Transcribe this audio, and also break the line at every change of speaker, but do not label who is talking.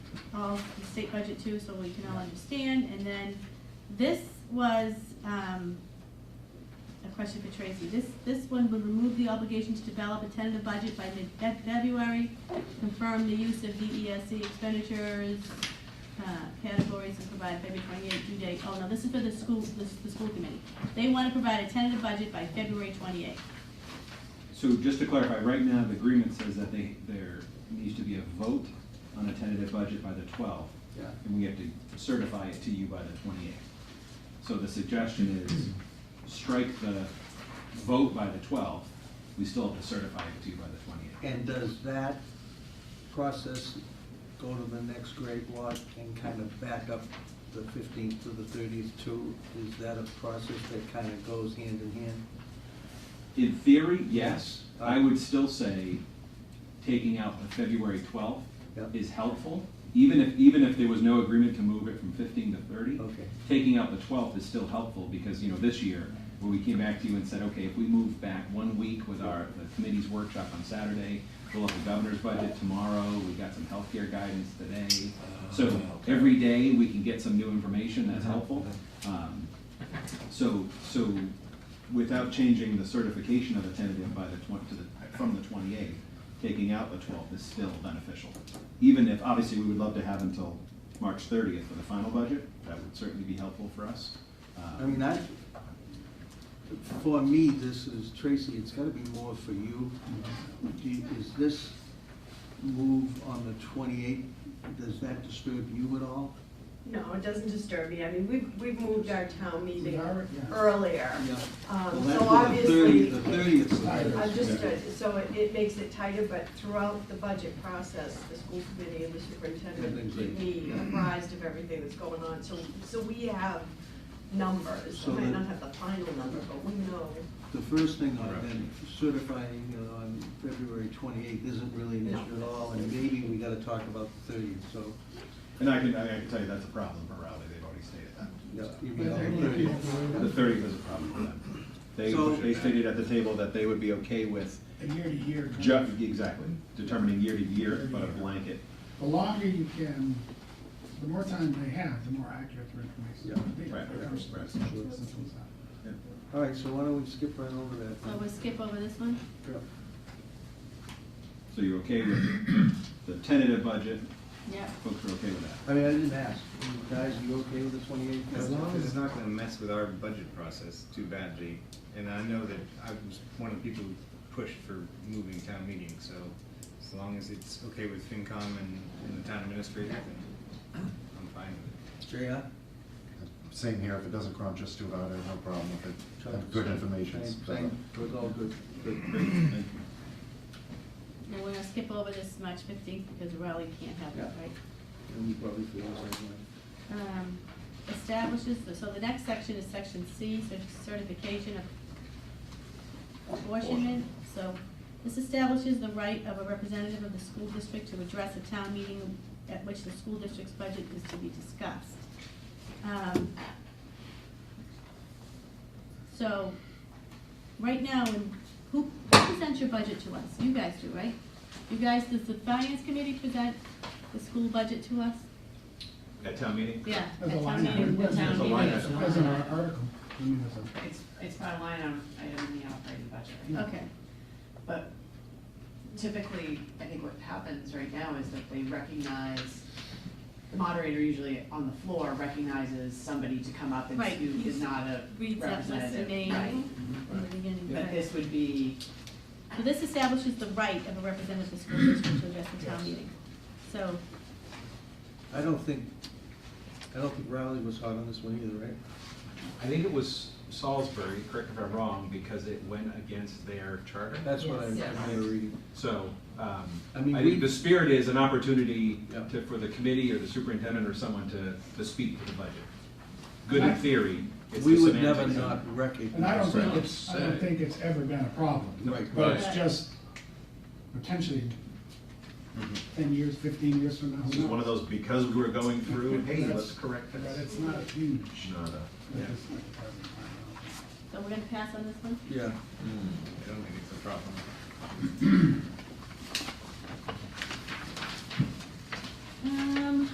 all the state budget too, so we can all understand. And then this was, um, a question for Tracy. This, this one would remove the obligation to develop a tentative budget by mid-February, confirm the use of DESC expenditures, uh, categories, and provide February twenty-eighth due date. Oh, no, this is for the school, the, the school committee. They want to provide a tentative budget by February twenty-eighth.
So just to clarify, right now, the agreement says that they, there needs to be a vote on a tentative budget by the twelfth.
Yeah.
And we have to certify it to you by the twenty-eighth. So the suggestion is strike the vote by the twelfth, we still have to certify it to you by the twenty-eighth.
And does that process go to the next grade lot and kind of back up the fifteenth to the thirtieth too? Is that a process that kind of goes hand in hand?
In theory, yes, I would still say taking out the February twelfth
Yep.
is helpful, even if, even if there was no agreement to move it from fifteen to thirty.
Okay,
taking out the twelfth is still helpful, because, you know, this year, where we came back to you and said, okay, if we move back one week with our, the committee's workshop on Saturday, we'll have the governor's budget tomorrow, we got some healthcare guidance today. So every day, we can get some new information that's helpful. Um, So, so without changing the certification of a tentative by the twen, to the, from the twenty-eighth, taking out the twelfth is still beneficial. Even if, obviously, we would love to have until March thirtieth for the final budget, that would certainly be helpful for us. Um,
I mean, I, for me, this is, Tracy, it's gotta be more for you. Do you- Is this move on the twenty-eighth, does that disturb you at all?
No, it doesn't disturb me. I mean, we've, we've moved our town meeting
We've already- yeah.
earlier.
Yeah. Well,
Um,
that's for
So
the 30
obviously,
The thirtieth's
Tighter.
I'm just, uh, so it, it makes it tighter, but throughout the budget process, the school committee and the superintendent
Everything's
keep me apprised of everything that's going on. So, so we have numbers.
So
We might
the-
not have the final number, but we know.
The first thing on then certifying uh, on February twenty-eighth isn't really an
No.
issue at all, and maybe we gotta talk about the thirtieth, so.
And I can, I can tell you that's a problem for Raleigh, they've already stated that.
yeah, you
But
know,
they're
30th.
The
gonna
thirtieth is a problem for them. They,
So-
they stated at the table that they would be okay with,
be A year to year. kind
ju-
of.
exactly, determining year to year, but a blanket
The longer you can, the more time they have, the more accurate their information.
Yeah,
will be.
right, right,
That's-
right.
that's what this one's on.
All right, so why don't we skip right over that?
So we'll skip over this one?
Yep.
So you're okay with the tentative budget,
Yep.
folks are okay with that?
I mean, I didn't ask. Guys, you okay with the twenty-eighth?
As long as it's not gonna mess with our budget process too badly, and I know that I was one of the people who pushed for moving town meeting, so as long as it's okay with FinCom and, and the town administrator, then I'm fine with
JR?
Same here, if it doesn't crunch us too hard, I have no problem with it. I have Good information.
Same, same. It was all good.
Great.
And we're gonna skip over this March fifteenth because Raleigh can't have that,
Yeah.
right?
And you probably feel the same way.
Um, Establishes, so the next section is section C, so certification of apportionment. So this establishes the right of a representative of the school district to address a town meeting at which the school district's budget is to be discussed. Um, So, right now, when- who presents your budget to us? You guys do, right? You guys, does the finance committee present the school budget to us?
At town meeting?
Yeah.
As a
at
line
town meeting.
item,
meeting,
as
town
a
meeting.
line item, as an ar- article, I mean, as a-
It's, it's by line item, item in the operating budget.
Okay,
But typically, I think what happens right now is that they recognize, the moderator usually on the floor recognizes somebody to come up and
Right,
see who is
he's-
not a
reads that list of
representative.
names
Right.
in the beginning.
But this would be,
So this establishes the right of a representative of the school district to address the town
Yes.
meeting. So,
I don't think, I don't think Riley was hot on this one either, right?
I think it was Salisbury, correct me if I'm wrong, because it went against their charter.
That's what I
Yes.
remember reading.
So, um,
I
I
mean, we-
think the spirit is an opportunity
Yeah.
to, for the committee or the superintendent or someone to, to speak to the budget. Good in
I-
theory, it's the
We would never
semantics.
not
And I don't
recognize
think
that.
it's, I don't think it's ever been a problem.
Right.
But it's
Right.
just potentially ten years, fifteen years from now.
Mm-hmm. This is one of those, because we were going through, hey, let's correct
But
this.
it's not a huge.
Not a-
but it's not a problem.
so we're gonna pass on this one?
Yeah.
it. I don't think it's a problem.
Um,